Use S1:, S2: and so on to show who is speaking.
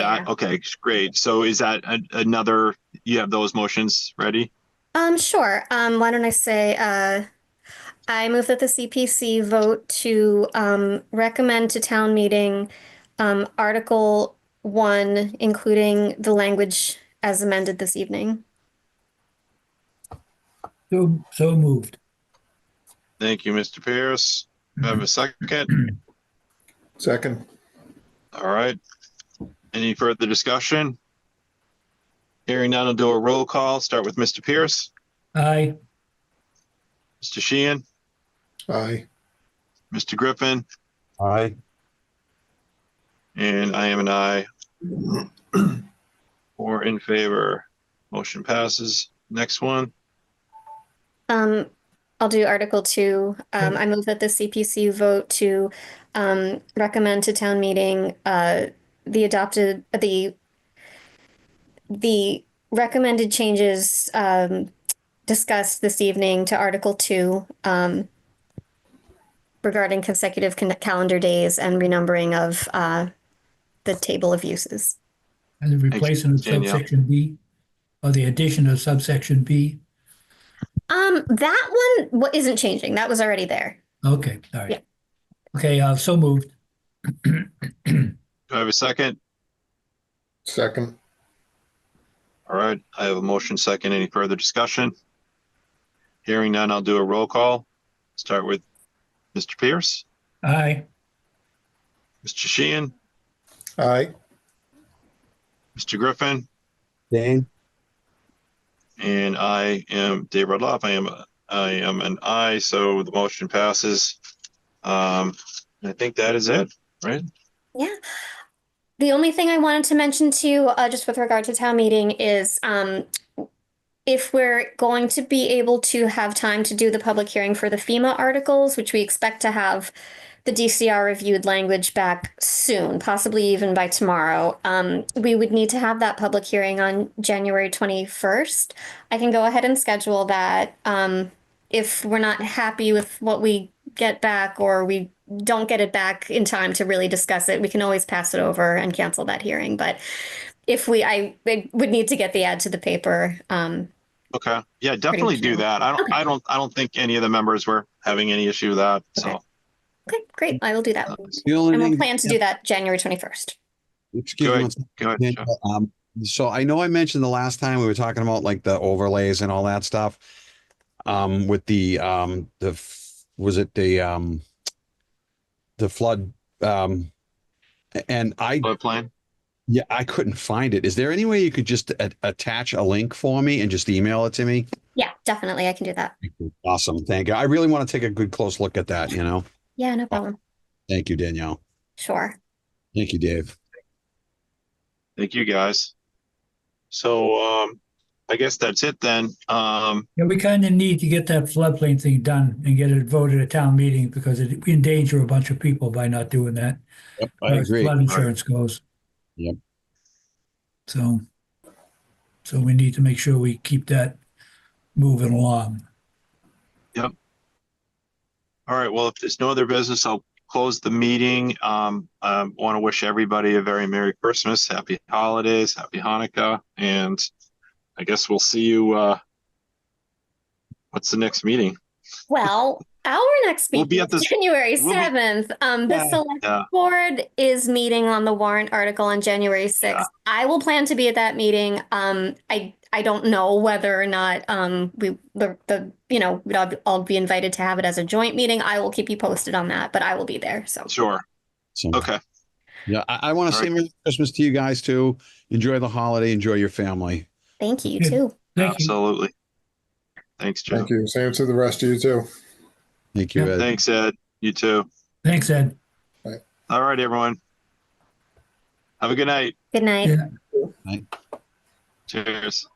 S1: that? Okay, great. So is that a- another, you have those motions ready?
S2: Um, sure. Um, why don't I say, uh, I move that the CPC vote to, um, recommend to town meeting, um, Article One, including the language as amended this evening.
S3: So, so moved.
S1: Thank you, Mr. Pierce. Do I Have a second?
S4: Second,
S1: All right. Any further discussion? Hearing none, I'll do a roll call. Start with Mr. Pierce,
S3: Aye.
S1: Mr. Sheehan,
S4: aye.
S1: Mr. Griffin,
S5: Aye.
S1: and I am an aye. Four in favor. Motion passes. Next one.
S2: Um, I'll do Article Two. Um, I move that the CPC vote to, um, recommend to town meeting, uh, the adopted, uh, the, the recommended changes, um, discussed this evening to Article Two, um, regarding consecutive con- calendar days and renumbering of, uh, the table of uses.
S3: And the replacement of
S1: Danielle.
S3: subsection B, or the addition of subsection B.
S2: Um, that one wa- isn't changing. That was already there.
S3: Okay,
S2: Yeah.
S3: all right. Okay, uh, so moved.
S1: Do I have a second?
S4: Second,
S1: All right, I have a motion second. Any further discussion? Hearing none, I'll do a roll call. Start with Mr. Pierce,
S3: Aye.
S1: Mr. Sheehan,
S4: aye.
S1: Mr. Griffin,
S5: Dane?
S1: and I am Dave Rudloff. I am, I am an I, so the motion passes. Um, I think that is it, right?
S2: Yeah. The only thing I wanted to mention to you, uh, just with regard to town meeting is, um, if we're going to be able to have time to do the public hearing for the FEMA articles, which we expect to have the DCR reviewed language back soon, possibly even by tomorrow, um, we would need to have that public hearing on January 21st. I can go ahead and schedule that. Um, if we're not happy with what we get back or we don't get it back in time to really discuss it, we can always pass it over and cancel that hearing. But if we, I I would need to get the ad to the paper. Um,
S1: Okay, yeah, definitely do
S2: chill.
S1: that. I don't,
S2: Okay.
S1: I don't, I don't think any of the members were having any issue with that, so. uh,
S2: okay, great. I will do that.
S5: The only
S2: And we'll
S5: thing,
S2: plan to do that January 21st.
S5: excuse
S1: Go
S5: me,
S1: ahead.
S5: one second,
S1: Go ahead, Jeff.
S5: Daniel. um, so I know I mentioned the last time we were talking about like the overlays and all that stuff. Um, with the, um, the, f- was it the, um, the flood, um, and I,
S1: Flood plain.
S5: yeah, I couldn't find it. Is there any way you could just a- attach a link for me and just email it to me?
S2: Yeah, definitely. I can do that.
S5: Awesome. Thank you. I really want to take a good close look at that, you know?
S2: Yeah, no problem.
S5: Thank you, Danielle.
S2: Sure.
S5: Thank you, Dave.
S1: Thank you, guys. So, um, I guess that's it then. Um,
S3: Yeah, we kind of need to get that floodplain thing done and get it voted at town meeting because it, we endanger a bunch of people by not doing that.
S5: Yep,
S3: as far as Flood insurance goes.
S5: Yep.
S3: So, so we need to make sure we keep that moving along.
S1: All right, well, if there's no other business, I'll close the meeting. Um, I want to wish everybody a very Merry Christmas, Happy Holidays, Happy Hanukkah, and I guess we'll see you, uh, what's the next meeting?
S2: Well, our next
S1: We'll be
S2: meeting
S1: at
S2: is
S1: the-
S2: January
S1: we'll be-
S2: 7th. Um, the
S5: Yeah.
S2: select
S1: Yeah.
S2: board is meeting on the warrant article on January 6th. I will plan to be at that meeting. Um, I, I don't know whether or not, um, we, the, the, you know, we'd all, be- all be invited to have it as a joint meeting. I will keep you posted on that, but I will be there. So
S1: Sure,
S5: So-
S1: okay,
S5: Yeah, I, I want to
S1: All
S5: say Merry Christmas to you guys too. Enjoy the holiday, enjoy your family.
S2: thank you, you
S3: Yeah.
S2: too.
S3: Thank you.
S1: absolutely. Thanks, Joe.
S4: Thank you. Same to the rest of you too.
S5: Thank you.
S3: Yeah.
S5: Ed.
S1: Thanks, Ed. You too.
S3: Thanks, Ed.
S1: All right, everyone. Have a good night.
S2: Good night.
S3: Yeah.
S1: Cheers.